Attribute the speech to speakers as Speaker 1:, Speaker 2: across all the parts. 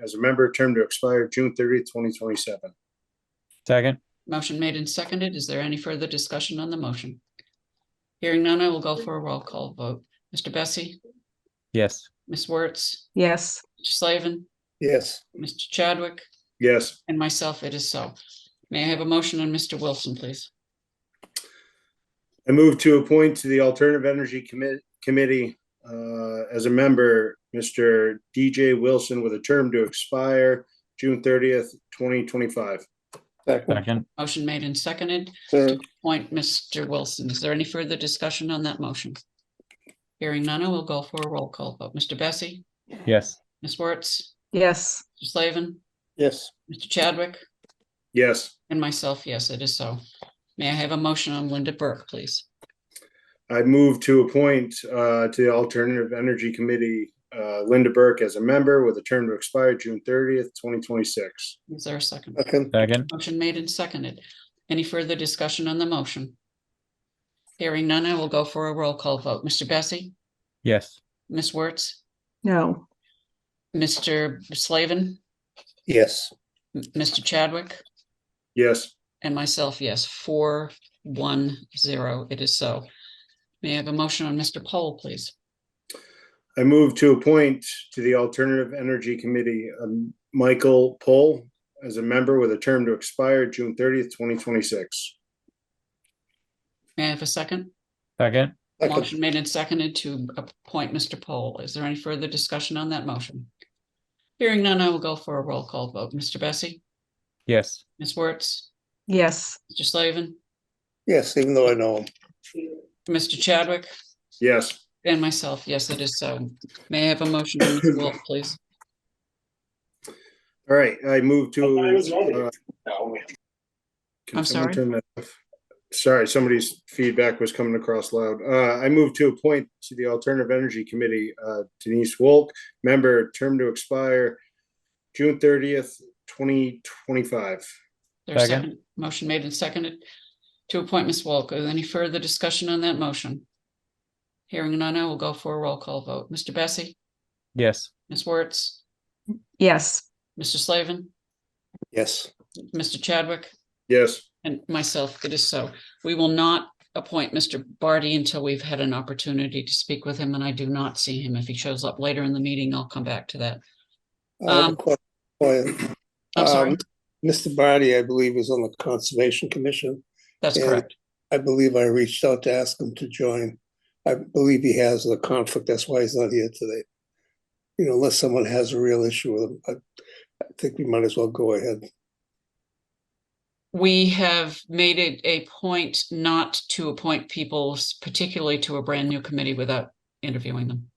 Speaker 1: as a member, term to expire June thirtieth, twenty twenty-seven.
Speaker 2: Second.
Speaker 3: Motion made and seconded. Is there any further discussion on the motion? Hearing none, I will go for a roll call vote. Mr. Bessie,
Speaker 2: Yes.
Speaker 3: Ms. Wertz,
Speaker 4: yes,
Speaker 3: Mr. Slavin,
Speaker 1: Yes.
Speaker 3: Mr. Chadwick,
Speaker 1: Yes.
Speaker 3: and myself, it is so. May I have a motion on Mr. Wilson, please?
Speaker 1: I move to appoint to the Alternative Energy Commit- Committee uh, as a member, Mr. DJ Wilson with a term to expire June thirtieth, twenty twenty-five.
Speaker 5: Second,
Speaker 2: Second.
Speaker 3: Motion made and seconded.
Speaker 5: third,
Speaker 3: Point, Mr. Wilson. Is there any further discussion on that motion? Hearing none, I will go for a roll call vote. Mr. Bessie,
Speaker 2: Yes.
Speaker 3: Ms. Wertz,
Speaker 4: yes,
Speaker 3: Mr. Slavin,
Speaker 5: yes,
Speaker 3: Mr. Chadwick,
Speaker 1: Yes,
Speaker 3: and myself, yes, it is so. May I have a motion on Linda Burke, please?
Speaker 1: I move to appoint uh, to the Alternative Energy Committee, uh, Linda Burke as a member with a term to expire June thirtieth, twenty twenty-six.
Speaker 3: Is there a second?
Speaker 5: second,
Speaker 2: Second.
Speaker 3: Motion made and seconded. Any further discussion on the motion? Hearing none, I will go for a roll call vote. Mr. Bessie,
Speaker 2: Yes.
Speaker 3: Ms. Wertz,
Speaker 4: no,
Speaker 3: Mr. Slavin,
Speaker 5: yes,
Speaker 3: M- Mr. Chadwick,
Speaker 1: Yes,
Speaker 3: and myself, yes, four, one, zero. It is so. May I have a motion on Mr. Poll, please?
Speaker 1: I move to appoint to the Alternative Energy Committee, um, Michael Pohl as a member with a term to expire June thirtieth, twenty twenty-six.
Speaker 3: May I have a second?
Speaker 2: Second.
Speaker 5: second,
Speaker 3: Motion made and seconded to appoint Mr. Poll. Is there any further discussion on that motion? Hearing none, I will go for a roll call vote. Mr. Bessie,
Speaker 2: Yes.
Speaker 3: Ms. Wertz,
Speaker 4: yes,
Speaker 3: Mr. Slavin,
Speaker 5: yes, even though I know him.
Speaker 3: Mr. Chadwick,
Speaker 1: Yes.
Speaker 3: and myself. Yes, it is so. May I have a motion on Mr. Wolf, please?
Speaker 1: All right, I move to. uh, can someone
Speaker 3: I'm sorry?
Speaker 1: turn that off? Sorry, somebody's feedback was coming across loud. Uh, I move to appoint to the Alternative Energy Committee uh, Denise Wolk, member, term to expire June thirtieth, twenty twenty-five.
Speaker 3: There's
Speaker 2: Second.
Speaker 3: second, motion made and seconded to appoint Ms. Walker. Any further discussion on that motion? Hearing none, I will go for a roll call vote. Mr. Bessie,
Speaker 2: Yes.
Speaker 3: Ms. Wertz,
Speaker 4: yes,
Speaker 3: Mr. Slavin,
Speaker 5: Yes,
Speaker 3: Mr. Chadwick,
Speaker 1: Yes,
Speaker 3: and myself. It is so. We will not appoint Mr. Barty until we've had an opportunity to speak with him, and I do not see him. If he shows up later in the meeting, I'll come back to that.
Speaker 5: Uh, I have a
Speaker 3: Um,
Speaker 5: que- que-
Speaker 3: I'm sorry,
Speaker 5: Um, Mr. Barty, I believe, is on the Conservation Commission.
Speaker 3: that's
Speaker 5: yeah.
Speaker 3: correct.
Speaker 5: I believe I reached out to ask him to join. I believe he has a conflict, that's why he's not here today. You know, unless someone has a real issue with him, but I think we might as well go ahead.
Speaker 3: We have made it a point not to appoint people, s- particularly to a brand new committee without interviewing them.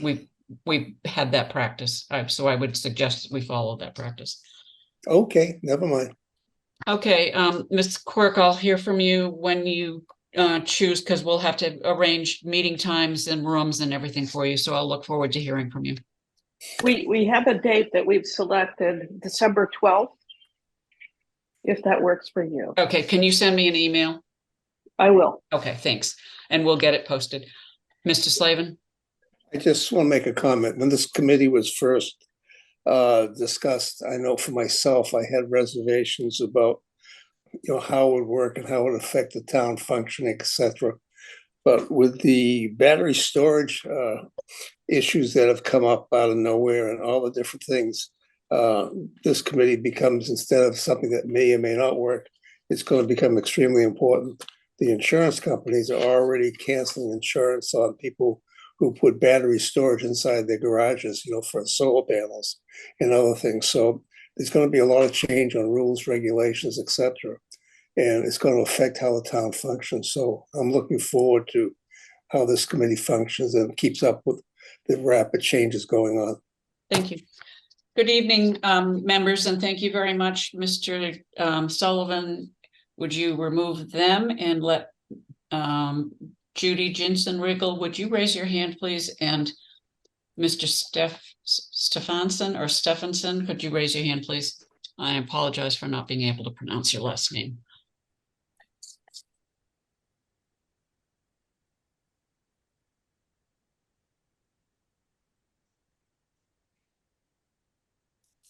Speaker 3: We've, we've had that practice, I- so I would suggest we follow that practice.
Speaker 5: Okay, never mind.
Speaker 3: Okay, um, Ms. Quirk, I'll hear from you when you uh, choose, because we'll have to arrange meeting times and rooms and everything for you, so I'll look forward to hearing from you.
Speaker 6: We, we have a date that we've selected, December 12th, if that works for you.
Speaker 3: Okay, can you send me an email?
Speaker 6: I will.
Speaker 3: Okay, thanks, and we'll get it posted. Mr. Slavin,
Speaker 5: I just want to make a comment. When this committee was first uh, discussed, I know for myself, I had reservations about, you know, how it would work and how it would affect the town functioning, et cetera. But with the battery storage uh, issues that have come up out of nowhere and all the different things, uh, this committee becomes, instead of something that may or may not work, it's going to become extremely important. The insurance companies are already canceling insurance on people who put battery storage inside their garages, you know, for solar panels and other things. So there's going to be a lot of change on rules, regulations, et cetera. And it's going to affect how the town functions. So I'm looking forward to how this committee functions and keeps up with the rapid changes going on.
Speaker 3: thank you. Good evening, um, members, and thank you very much, Mr. um, Sullivan. Would you remove them and let um, Judy Jensen Riggle, would you raise your hand, please? And Mr. Steph Stephanson or Stephenson, could you raise your hand, please? I apologize for not being able to pronounce your last name.